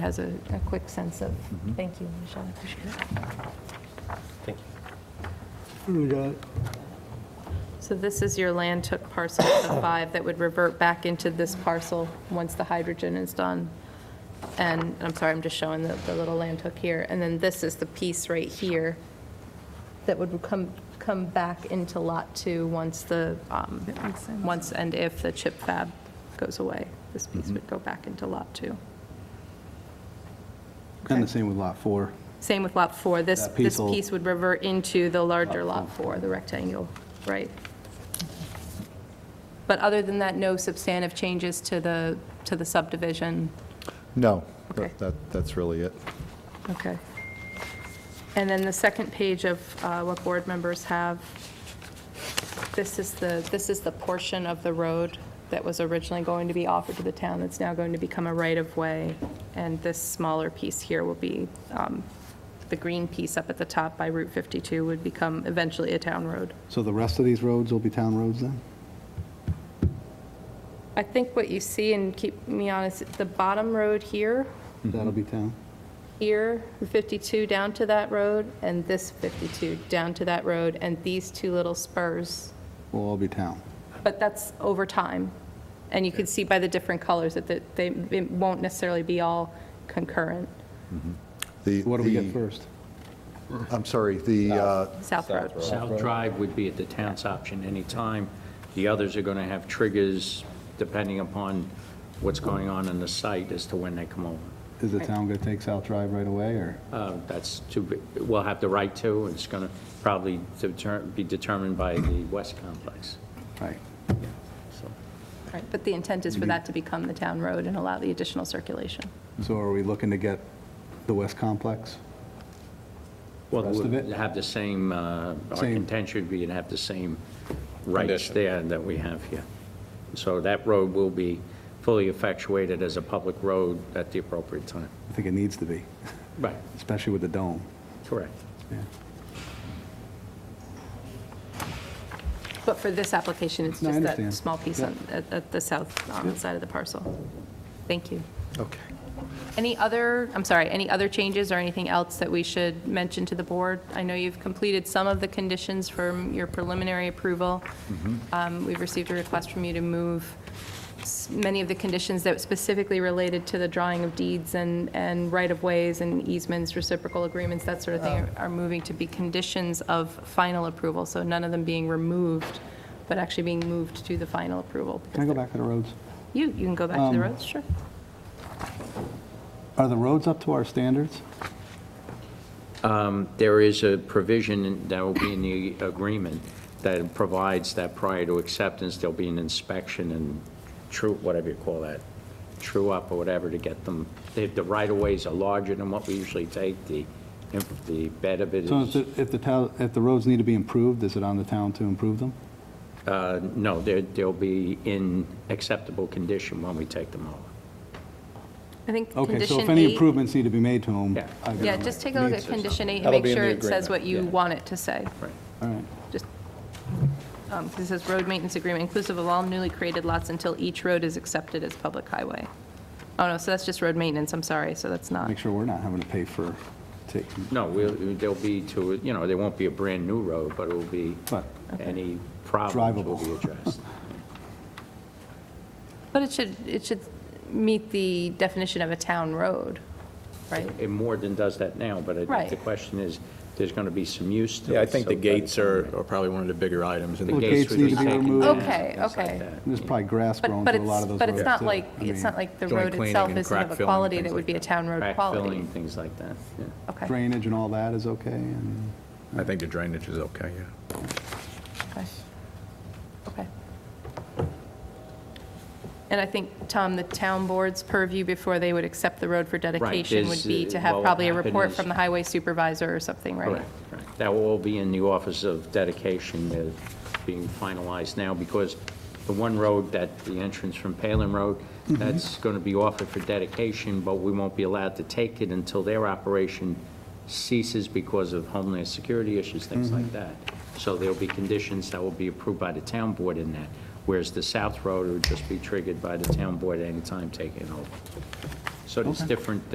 has a, a quick sense of, thank you, Michelle, I appreciate it. Thank you. We got So this is your land took parcel of five that would revert back into this parcel once the hydrogen is done. And, and I'm sorry, I'm just showing the, the little land took here. And then this is the piece right here that would come, come back into Lot 2 once the, um, once and if the chip fab goes away. This piece would go back into Lot 2. And the same with Lot 4. Same with Lot 4. This, That piece this will- piece would revert into the larger Lot Lot 4, the rectangle, right? But other than that, no substantive changes to the, to the subdivision? No, Okay. that, that- that's really it. Okay. And then the second page of uh, what board members have, this is the, this is the portion of the road that was originally going to be offered to the town that's now going to become a right-of-way, and this smaller piece here will be, um, the green piece up at the top by Route 52 would become eventually a town road. So the rest of these roads will be town roads then? I think what you see, and keep me honest, the bottom road here, That'll be town? here, 52 down to that road, and this 52 down to that road, and these two little spurs. Will all be town? But that's over time. And you can see by the different colors that that they, it won't necessarily be all concurrent. The- What do we get the- first? I'm sorry, the, uh, South Road. South Drive would be at the town's option anytime. The others are going to have triggers depending upon what's going on in the site as to when they come over. Is the town going to take South Drive right away, or? Uh, That's too, big. we'll have the right to, and it's going to probably deter- be determined by the West Complex. Right. So Right, But the intent Mm-hmm. is for that to become the town road and allow the additional circulation. So are we looking to get the West Complex? Well, Rest of it? we'll have the same, uh, our Same. contention would be to have the same rights there that we have here. So that road will be fully effectuated as a public road at the appropriate time. I think it needs to be, Right. especially with the dome. Correct. Yeah. But for this application, it's No, I just that understand. small piece on, at, at the south um, Yep. side of the parcel. Thank you. okay. Any other, I'm sorry, any other changes or anything else that we should mention to the board? I know you've completed some of the conditions from your preliminary approval. Mm-hmm. Um, We've received a request from you to move s- many of the conditions that specifically related to the drawing of deeds and, and right-of-ways and easements, reciprocal agreements, that sort of thing, Oh. are moving to be conditions of final approval, so none of them being removed, but actually being moved to the final approval. Can I go back Um, to the roads? You, you can go back to the roads, sure. Are the roads up to our standards? There is a provision that will be in the agreement that provides that prior to acceptance, there'll be an inspection and true, whatever you call that, true up or whatever to get them, the the right-of-ways are larger than what we usually take, the, if the bed of it So if is, the, if the town, if the roads need to be improved, is it on the town to improve them? uh, no, there- they'll be in acceptable condition when we take them over. I think condition Okay, eight. so if any improvements need to be made to them. Yeah. I Yeah, gotta- just take a look at needs- condition eight and That'll make be in sure the it says agreement, what you yeah. want it to say. Right. All right. Just, um, 'cause it says road maintenance agreement inclusive of all newly created lots until each road is accepted as public highway. Oh, no, so that's just road maintenance, I'm sorry, so that's not. Make sure we're not having to pay for taking. No, we'll, they'll be to, you know, there won't be a brand-new road, but it will be, Right. any problems will be Drivable. addressed. But it should, it should meet the definition of a town road, right? It more than does that now, but I Right. think the question is, there's going to be some use to it. Yeah, I think so the by gates time are are probably one of the bigger items. in The Well, the- gates gates would need be to be taken removed. down, Okay, things like okay. that. There's probably grass But, growing but through a lot it's, of those roads. but it's not too. like, I it's mean, not like the joint road cleaning itself and isn't crack of a filling and quality things that would like be a that. town road Crack quality. filling, things like that, yeah. Okay. Drainage and all that is okay, and I think the drainage is okay, yeah. Okay. Okay. And I think, Tom, the town board's purview before they would accept the road for dedication would is, be uh, to have what would probably a happen report is- from the highway supervisor or something, right? Correct, correct. That will all be in the Office of Dedication, that being finalized now, because the one road that, the entrance from Palin Road, that's going to be offered for dedication, but we won't be allowed to take it until their operation ceases because of homeland security issues, things like that. So there'll be conditions that will be approved by the town board in that, whereas the South Road would just be triggered by the town board anytime taken over. So it's different